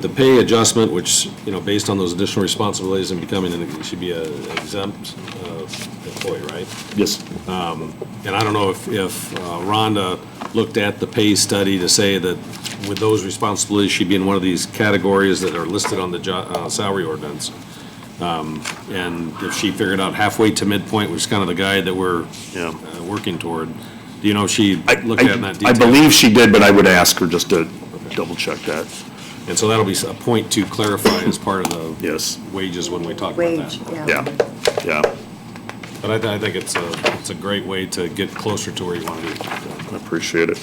The pay adjustment, which, you know, based on those additional responsibilities and becoming, an- you should be a exempt uh, employee, right? Yes. And I don't know if, if uh, Rhonda looked at the pay study to say that with those responsibilities, she'd be in one of these categories that are listed on the jo- uh, salary ordinance. Um, And if she figured out halfway to midpoint, which is kind of the guide that we're Yeah. uh, working toward, do you know if she I- looked at it in that I- I detail? believe she did, but I would ask her just to double check that. And so that'll be a point to clarify as part of the Yes, wages when we talk about that. Wage, yeah. yeah, yeah, But I, th- I think it's a, it's a great way to get closer to where you want to be. I appreciate it.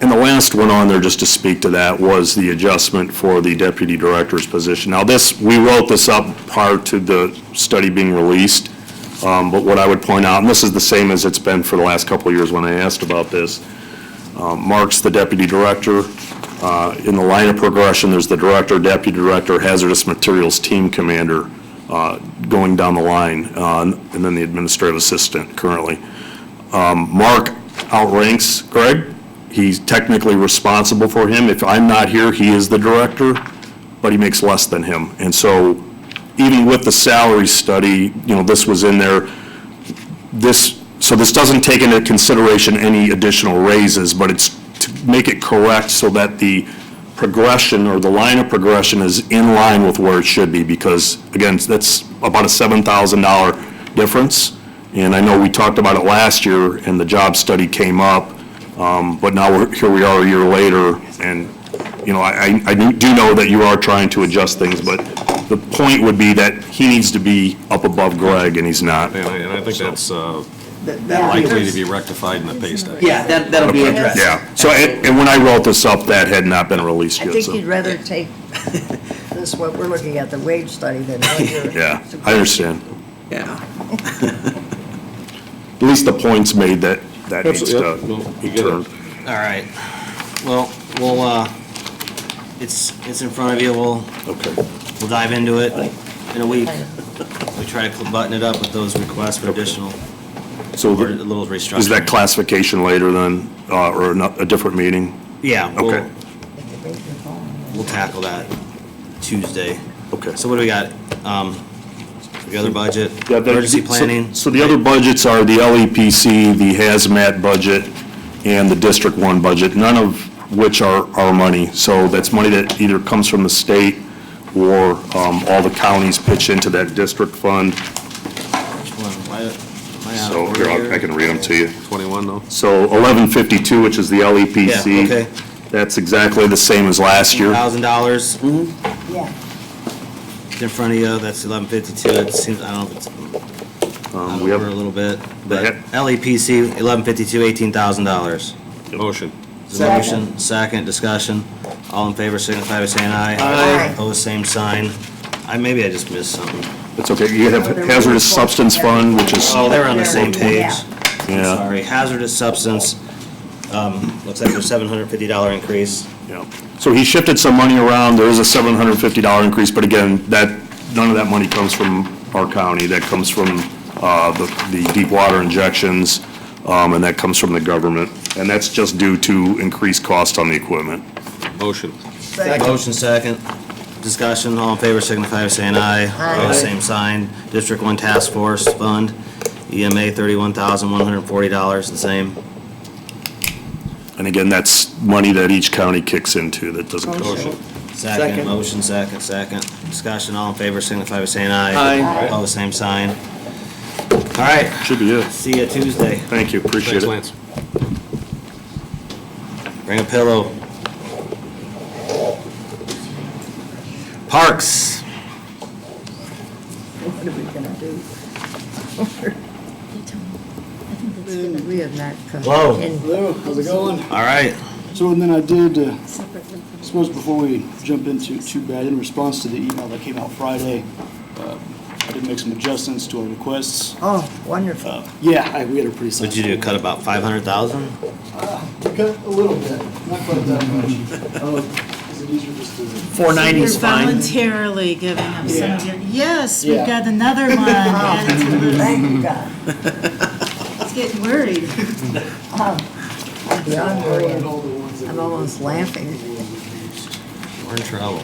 And the last one on there, just to speak to that, was the adjustment for the deputy director's position. Now, this, we wrote this up prior to the study being released, um, but what I would point out, and this is the same as it's been for the last couple of years when I asked about this, um, Mark's the deputy director. Uh, In the line of progression, there's the director, deputy director, hazardous materials team commander, uh, going down the line, uh, and then the administrative assistant currently. Um, Mark outranks Greg. He's technically responsible for him. If I'm not here, he is the director, but he makes less than him. And so even with the salary study, you know, this was in there this, so this doesn't take into consideration any additional raises, but it's to make it correct so that the progression or the line of progression is in line with where it should be, because again, that's about a seven thousand dollar difference. And I know we talked about it last year and the job study came up, um, but now we're, here we are a year later and, you know, I, I- I do know that you are trying to adjust things, but the point would be that he needs to be up above Greg and he's not. And I, and I think that's uh, That- that'll likely to be- be rectified in the pay study. Yeah, that, that'll be addressed. Yeah, so, and, and when I wrote this up, that had not been released I yet, think so, you'd rather take this, what we're looking at, the wage study than what you're. yeah, I understand. Yeah. At least the point's made that, that needs to Absolutely, yeah. No, be you get it. turned. All right. Well, we'll, uh, it's, it's in front of you. We'll, Okay, we'll dive into it in a week. We try to cl- button it up with those requests for additional, so or a the- little restructuring. is that classification later then, uh, or not, a different meeting? Yeah, Okay. we'll, we'll tackle that Tuesday. Okay. So what do we got? Um, the other budget, Yeah, that- emergency so- planning? So the other budgets are the LEPC, the hazmat budget, and the District One budget, none of which are our money. So that's money that either comes from the state or, um, all the counties pitch into that district fund. Which one? Why- am I out of So here, order I'll- I can read them to you. 21, though? So 1152, which is the Yeah, okay. LEPC, that's exactly the same as last year. Thousand dollars Yeah, in front of you, that's eleven fifty-two. It seems, I don't know if it's Um, out We of order a have, little bit, but hip- LEPC, eleven fifty-two, eighteen thousand dollars. Motion. Motion, second, discussion, all in favor, signify by saying aye. Aye. Opposed, same sign. I, maybe I just missed something. it's okay, you have hazardous substance fund, which is, Oh, they were on the same page. yeah, Sorry, hazardous substance, um, looks like a seven hundred fifty dollar increase. yeah. So he shifted some money around, there is a $750 increase, but again, that, none of that money comes from our county, that comes from uh, the the deep water injections, um, and that comes from the government, and that's just due to increased cost on the equipment. Motion. Motion, second, discussion, all in favor, signify by saying aye. Aye. Opposed, Same sign, District One Task Force Fund, EMA thirty-one thousand one hundred forty dollars, the same. And again, that's money that each county kicks into, that doesn't Oh, come Motion. Second, Second. motion second, second. Discussion, all in favor, signify by saying aye. Aye. All the same sign. All right, Should be it. see you Tuesday. Thank you, appreciate Thanks, Lance. it. Bring a pillow. Parks. What are we gonna do? We have not come. Hello. in- Hello, how's it going? All right, So, and then I did, uh, I suppose before we jump into too bad, in response to the email that came out Friday, uh, I did make some adjustments to our requests. Oh, wonderful. Uh, Yeah, I- we had a pretty what'd solid. you do, cut about five hundred thousand? Cut a little bit, not quite that much. Um, Is it easier just to? Four ninety's You're fine. voluntarily giving up some of your, yes, we've Yeah. got another one Uh, added to the list. Thank you, God. It's getting worried. Oh, I'm Beyond I had worrying. all the ones that I'm were- almost laughing. were reduced. We're in trouble.